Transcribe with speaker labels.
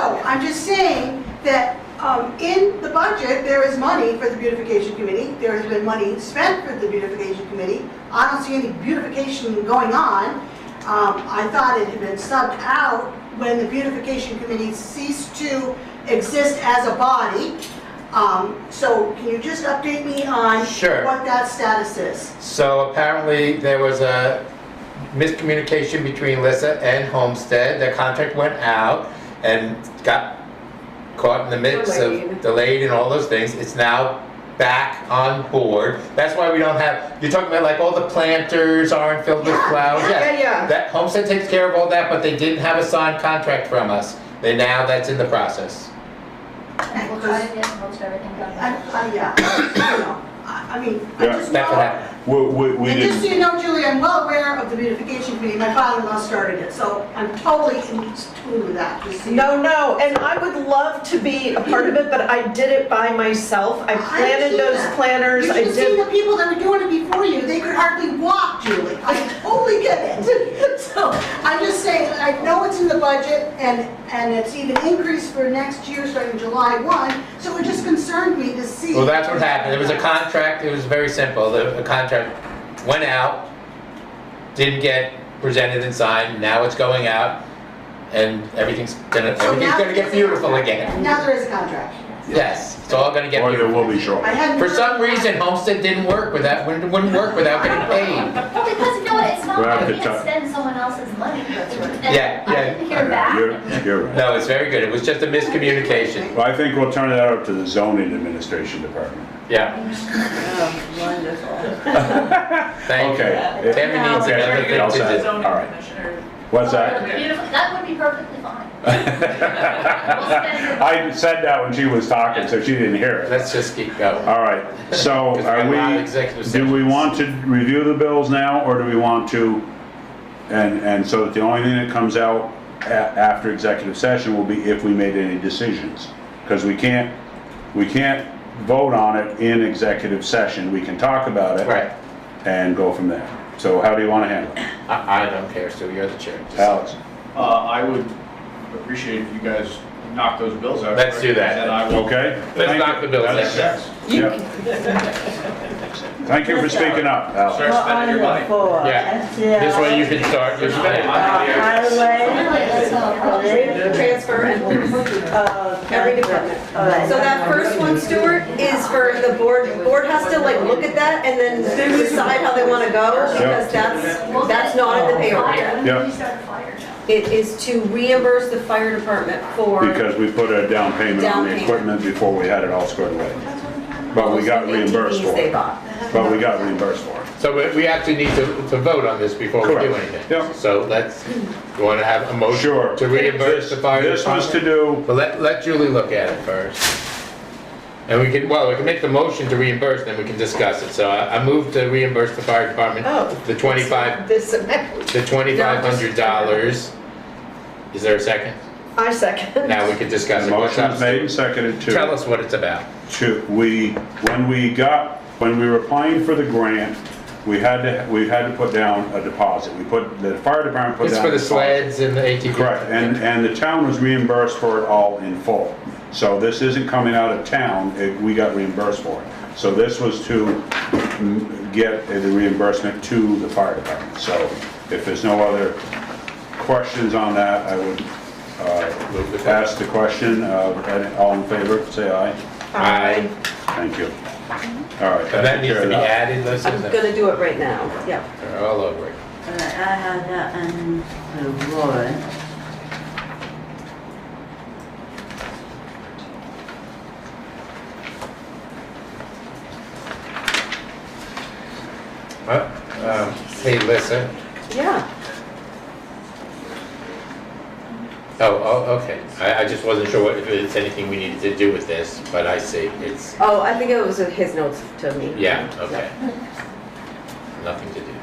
Speaker 1: I'm just saying that um, in the budget, there is money for the beautification committee. There has been money spent for the beautification committee. I don't see any beautification going on. Um, I thought it had been subbed out when the beautification committee ceased to exist as a body. Um, So can you just update me on
Speaker 2: Sure.
Speaker 1: what that status is?
Speaker 2: So apparently, there was a miscommunication between Lissa and Homestead. Their contract went out and got caught in the midst of
Speaker 3: Delayed.
Speaker 2: delayed and all those things. It's now back on board. That's why we don't have, you're talking about like all the planters aren't filled with
Speaker 1: Yeah,
Speaker 2: flowers.
Speaker 3: yeah, yeah.
Speaker 2: That Homestead takes care of all that, but they didn't have a signed contract from us. They now, that's in the process.
Speaker 4: And we'll try to get most everything done.
Speaker 1: I, I, yeah, you know, I I mean, I
Speaker 5: Yeah.
Speaker 1: just know.
Speaker 2: That's what happened.
Speaker 5: We, we, we
Speaker 1: And just so
Speaker 5: didn't,
Speaker 1: you know, Julie, I'm well aware of the beautification committee, my father-in-law started it, so I'm totally in tune with that, just so you know.
Speaker 3: No, no, and I would love to be a part of it, but I did it by myself. I
Speaker 1: I see
Speaker 3: planted those
Speaker 1: that.
Speaker 3: planters,
Speaker 1: You
Speaker 3: I
Speaker 1: should see
Speaker 3: did.
Speaker 1: the people that were doing it before you, they could hardly walk, Julie, I totally get it. So, I'm just saying, I know it's in the budget, and, and it's even increased for next year, starting July 1, so it just concerned me to see.
Speaker 2: Well, that's what happened. It was a contract, it was very simple. The the contract went out, didn't get presented and signed, now it's going out, and everything's gonna,
Speaker 1: So
Speaker 2: everything's
Speaker 1: now-
Speaker 2: gonna get beautiful again.
Speaker 1: Now there is a contract.
Speaker 2: Yes, it's all gonna get
Speaker 5: or there
Speaker 2: beautiful.
Speaker 5: will be shortly.
Speaker 1: I hadn't.
Speaker 2: For some reason, Homestead didn't work without, wouldn't wouldn't work without getting paid.
Speaker 4: Well, because, no, it's not
Speaker 5: We're out
Speaker 4: like
Speaker 5: of
Speaker 4: we
Speaker 5: time.
Speaker 4: can spend someone else's money.
Speaker 2: Yeah,
Speaker 4: I
Speaker 2: yeah.
Speaker 4: didn't hear back.
Speaker 5: You're, you're right.
Speaker 2: No, it's very good. It was just a miscommunication.
Speaker 5: Well, I think we'll turn that up to the zoning administration department.
Speaker 2: Yeah,
Speaker 3: Wonderful.
Speaker 2: thank you.
Speaker 5: Okay.
Speaker 2: Tammy
Speaker 5: Yeah.
Speaker 2: needs
Speaker 5: Okay,
Speaker 2: another
Speaker 5: you're all
Speaker 2: thing to
Speaker 5: set.
Speaker 2: do.
Speaker 5: All right. What's that?
Speaker 4: Beautiful, that would be perfectly fine.
Speaker 5: I said that when she was talking, so she didn't hear it.
Speaker 2: Let's just keep going.
Speaker 5: All right, so
Speaker 2: Because we
Speaker 5: are
Speaker 2: have a lot of
Speaker 5: we,
Speaker 2: executive
Speaker 5: do we
Speaker 2: sessions.
Speaker 5: want to review the bills now, or do we want to? And, and so that the only thing that comes out a- after executive session will be if we made any decisions. Because we can't, we can't vote on it in executive session, we can talk about it.
Speaker 2: Right.
Speaker 5: And go from there. So how do you want to handle it?
Speaker 2: I, I don't care, Sue, you're the chair. Just-
Speaker 5: Alex?
Speaker 6: Uh, I would appreciate if you guys knock those bills out.
Speaker 2: Let's do that.
Speaker 6: And I will.
Speaker 5: Okay?
Speaker 2: Let's
Speaker 5: Thank
Speaker 2: knock the
Speaker 5: you.
Speaker 2: bills
Speaker 5: That's-
Speaker 2: out.
Speaker 5: yeah. Thank you for speaking up, Alex.
Speaker 6: Start spending your money.
Speaker 2: Yeah, this way you can start your spending.
Speaker 3: Uh,
Speaker 7: Transfer and
Speaker 3: uh,
Speaker 7: every department. So that first one, Stuart, is for the board, the board has to like look at that and then decide how they want to go because that's, that's not in the payroll yet.
Speaker 4: Why
Speaker 5: Yeah.
Speaker 4: would we start a fire now?
Speaker 7: It is to reimburse the fire department for,
Speaker 5: Because we put a down payment on
Speaker 7: Down
Speaker 5: the
Speaker 7: payment.
Speaker 5: equipment before we had it all squared away. But we got reimbursed for
Speaker 7: ATVs they
Speaker 5: it.
Speaker 7: bought.
Speaker 5: But we got reimbursed for it.
Speaker 2: So we- we actually need to, to vote on this before we do
Speaker 5: Correct.
Speaker 2: anything.
Speaker 5: Yep.
Speaker 2: So let's, you want to have a motion?
Speaker 5: Sure.
Speaker 2: To reimburse the fire
Speaker 5: This was to
Speaker 2: department?
Speaker 5: do,
Speaker 2: But let, let Julie look at it first. And we can, well, we can make the motion to reimburse, then we can discuss it. So I, I move to reimburse the fire department
Speaker 3: Oh.
Speaker 2: the twenty-five,
Speaker 3: This amount.
Speaker 2: the twenty-five hundred dollars. Is there a second?
Speaker 3: I second.
Speaker 2: Now we can discuss
Speaker 5: the
Speaker 2: it. What's
Speaker 5: motion
Speaker 2: up,
Speaker 5: was made and
Speaker 2: Steve?
Speaker 5: seconded
Speaker 2: Tell
Speaker 5: to,
Speaker 2: us what it's about.
Speaker 5: to, we, when we got, when we were applying for the grant, we had to, we had to put down a deposit. We put, the fire department put
Speaker 2: It's
Speaker 5: down.
Speaker 2: for
Speaker 5: a
Speaker 2: the
Speaker 5: deposit.
Speaker 2: sleds and the ATV.
Speaker 5: Correct, and, and the town was reimbursed for it all in full. So this isn't coming out of town, it- we got reimbursed for it. So this was to mm, get the reimbursement to the fire department. So if there's no other questions on that, I would
Speaker 2: Move the
Speaker 5: uh,
Speaker 2: question.
Speaker 5: ask the question, uh, all in favor, say aye.
Speaker 2: Aye.
Speaker 5: Thank you. All right.
Speaker 2: And that needs to
Speaker 5: took
Speaker 2: be
Speaker 5: care
Speaker 2: added, Listen.
Speaker 7: I'm gonna do it right now, yeah.
Speaker 2: They're all over it.
Speaker 8: All right, I have that on the warrant.
Speaker 2: Uh, um, Hey, Lisa.
Speaker 7: Yeah.
Speaker 2: Oh, oh, okay. I, I just wasn't sure what, if it's anything we needed to do with this, but I see. It's,
Speaker 7: Oh, I think it was his notes to me.
Speaker 2: yeah, okay. Nothing to do.